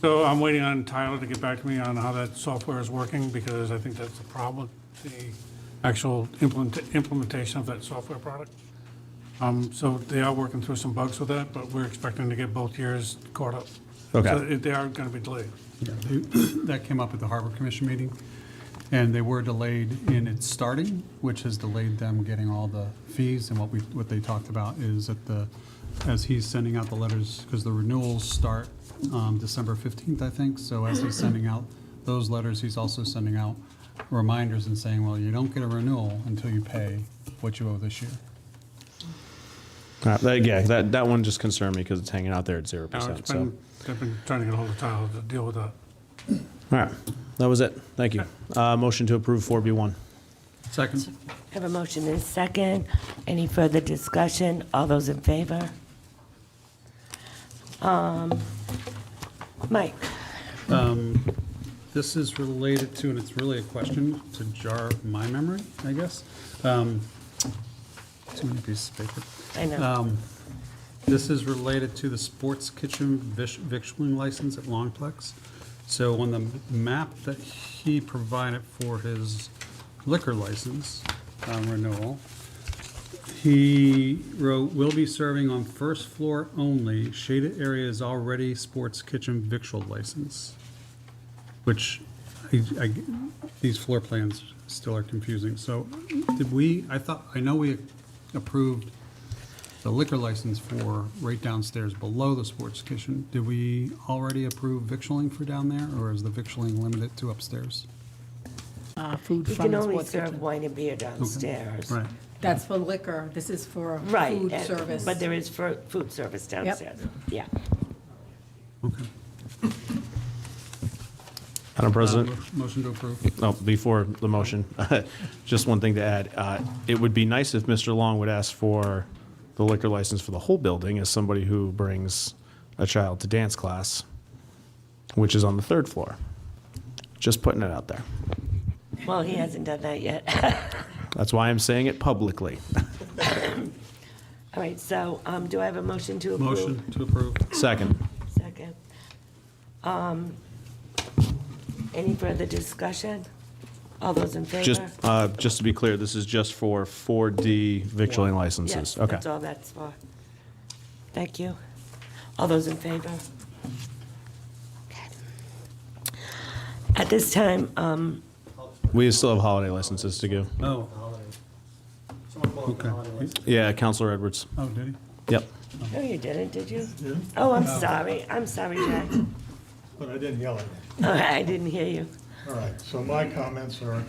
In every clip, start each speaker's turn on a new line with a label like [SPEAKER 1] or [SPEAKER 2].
[SPEAKER 1] So I'm waiting on Tyler to get back to me on how that software is working, because I think that's the problem, the actual implement, implementation of that software product. Um, so they are working through some bugs with that, but we're expecting to get both years caught up.
[SPEAKER 2] Okay.
[SPEAKER 1] So it- they are gonna be delayed.
[SPEAKER 3] Yeah, they- That came up at the Harbor Commission meeting, and they were delayed in its starting, which has delayed them getting all the fees, and what we, what they talked about is that the, as he's sending out the letters, because the renewals start um, December 15th, I think, so as he's sending out those letters, he's also sending out reminders and saying, well, you don't get a renewal until you pay what you owe this year.
[SPEAKER 2] Uh, that, yeah, that, that one just concerned me because it's hanging out there at zero
[SPEAKER 1] Now,
[SPEAKER 2] percent.
[SPEAKER 1] it's
[SPEAKER 2] So, all
[SPEAKER 1] been, they've been trying to get hold of Tyler to deal with that.
[SPEAKER 2] right, that was it. Thank you. Uh, motion to approve four B one.
[SPEAKER 3] Second.
[SPEAKER 4] Have a motion and a second. Any further discussion? All those in favor? Um, Mike,
[SPEAKER 3] This is related to, and it's really a question to jar my memory, I guess. Um, Too many pieces of paper.
[SPEAKER 4] I know.
[SPEAKER 3] Um, This is related to the sports kitchen vis- victualling license at Longplex. So on the map that he provided for his liquor license um, renewal, he wrote, "Will be serving on first floor only. Shaded area is already sports kitchen victual license." Which, I- I, these floor plans still are confusing. So did we, I thought, I know we approved the liquor license for right downstairs below the sports kitchen. Did we already approve victualling for down there, or is the victualling limited to upstairs?
[SPEAKER 5] uh, food
[SPEAKER 4] You
[SPEAKER 5] from
[SPEAKER 4] can
[SPEAKER 5] the
[SPEAKER 4] only
[SPEAKER 5] sports
[SPEAKER 4] serve
[SPEAKER 5] kitchen.
[SPEAKER 4] wine and beer downstairs.
[SPEAKER 3] Right.
[SPEAKER 5] That's for liquor, this is for
[SPEAKER 4] Right.
[SPEAKER 5] food
[SPEAKER 4] and-
[SPEAKER 5] service.
[SPEAKER 4] But there is fur- food service downstairs. Yeah.
[SPEAKER 3] Okay.
[SPEAKER 2] Madam President.
[SPEAKER 3] Uh, Motion to approve.
[SPEAKER 2] Oh, before the motion, just one thing to add. Uh, It would be nice if Mr. Long would ask for the liquor license for the whole building as somebody who brings a child to dance class, which is on the third floor. Just putting it out there.
[SPEAKER 4] Well, he hasn't done that yet.
[SPEAKER 2] That's why I'm saying it publicly.
[SPEAKER 4] All right, so um, do I have a motion to approve?
[SPEAKER 3] Motion to approve.
[SPEAKER 2] Second.
[SPEAKER 4] Second. Um, Any further discussion? All those in favor?
[SPEAKER 2] Just, uh, just to be clear, this is just for 4D victualling licenses.
[SPEAKER 4] Yes,
[SPEAKER 2] Okay.
[SPEAKER 4] that's all that's for. Thank you. All those in favor? At this time, um,
[SPEAKER 2] We still have holiday licenses to go.
[SPEAKER 3] Oh, okay.
[SPEAKER 2] Yeah, Counselor Edwards.
[SPEAKER 3] Oh, did he?
[SPEAKER 2] Yep.
[SPEAKER 4] no, you didn't, did you? Oh, I'm sorry, I'm sorry, Jack.
[SPEAKER 6] But I didn't yell at you.
[SPEAKER 4] All right, I didn't hear you.
[SPEAKER 6] All right, so my comments are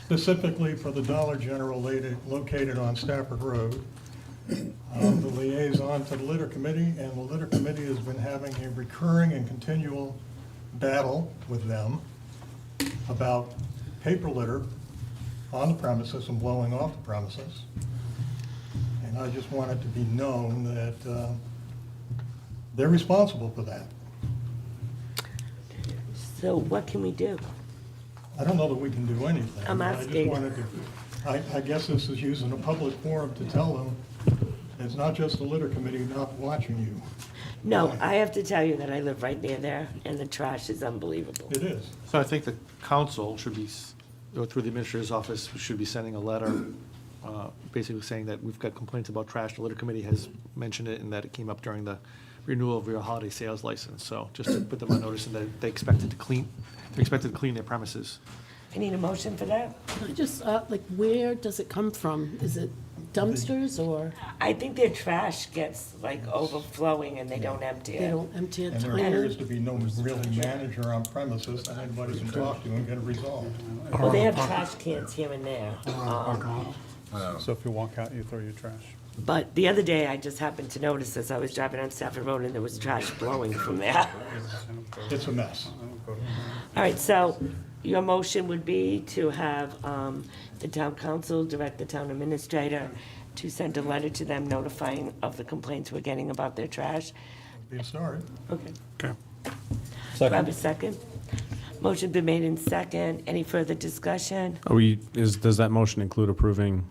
[SPEAKER 6] specifically for the Dollar General lati- located on Stafford Road. I'm the liaison to the litter committee, and the litter committee has been having a recurring and continual battle with them about paper litter on the premises and blowing off the premises. And I just want it to be known that uh, they're responsible for that.
[SPEAKER 4] So what can we do?
[SPEAKER 6] I don't know that we can do anything.
[SPEAKER 4] I'm
[SPEAKER 6] I just
[SPEAKER 4] asking.
[SPEAKER 6] wanted to- I, I guess this is using a public forum to tell them, it's not just the litter committee not watching you.
[SPEAKER 4] No, I have to tell you that I live right near there, and the trash is unbelievable.
[SPEAKER 6] It is.
[SPEAKER 7] So I think the council should be, s- or through the administrator's office, should be sending a letter, uh, basically saying that we've got complaints about trash. The litter committee has mentioned it and that it came up during the renewal of your holiday sales license. So just to put them on notice and that they expected to clean, they're expected to clean their premises.
[SPEAKER 4] I need a motion for that?
[SPEAKER 5] Can I Just, uh, like, where does it come from? Is it dumpsters, or
[SPEAKER 4] I think their trash gets like overflowing and they don't empty
[SPEAKER 5] they
[SPEAKER 4] it.
[SPEAKER 5] don't empty it?
[SPEAKER 6] And there
[SPEAKER 5] clean it?
[SPEAKER 6] appears to be no really manager on premises that anybody can talk to and get it resolved.
[SPEAKER 4] Well, they have trash cans here and there. um,
[SPEAKER 3] So if you walk out, you throw your trash.
[SPEAKER 4] But the other day, I just happened to notice as I was driving on Stafford Road and there was trash blowing from there.
[SPEAKER 6] It's a mess.
[SPEAKER 4] All right, so your motion would be to have um, the town council direct the town administrator to send a letter to them notifying of the complaints we're getting about their trash.
[SPEAKER 6] Be sorry.
[SPEAKER 4] Okay.
[SPEAKER 1] Okay.
[SPEAKER 4] Do I have a second? Motion been made in second. Any further discussion?
[SPEAKER 2] Are we, is, does that motion include approving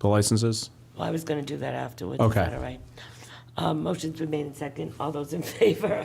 [SPEAKER 2] the licenses?
[SPEAKER 4] Well, I was going to do that afterwards. Is that
[SPEAKER 2] Okay.
[SPEAKER 4] all right? Um, Motion's been made in second. All those in favor?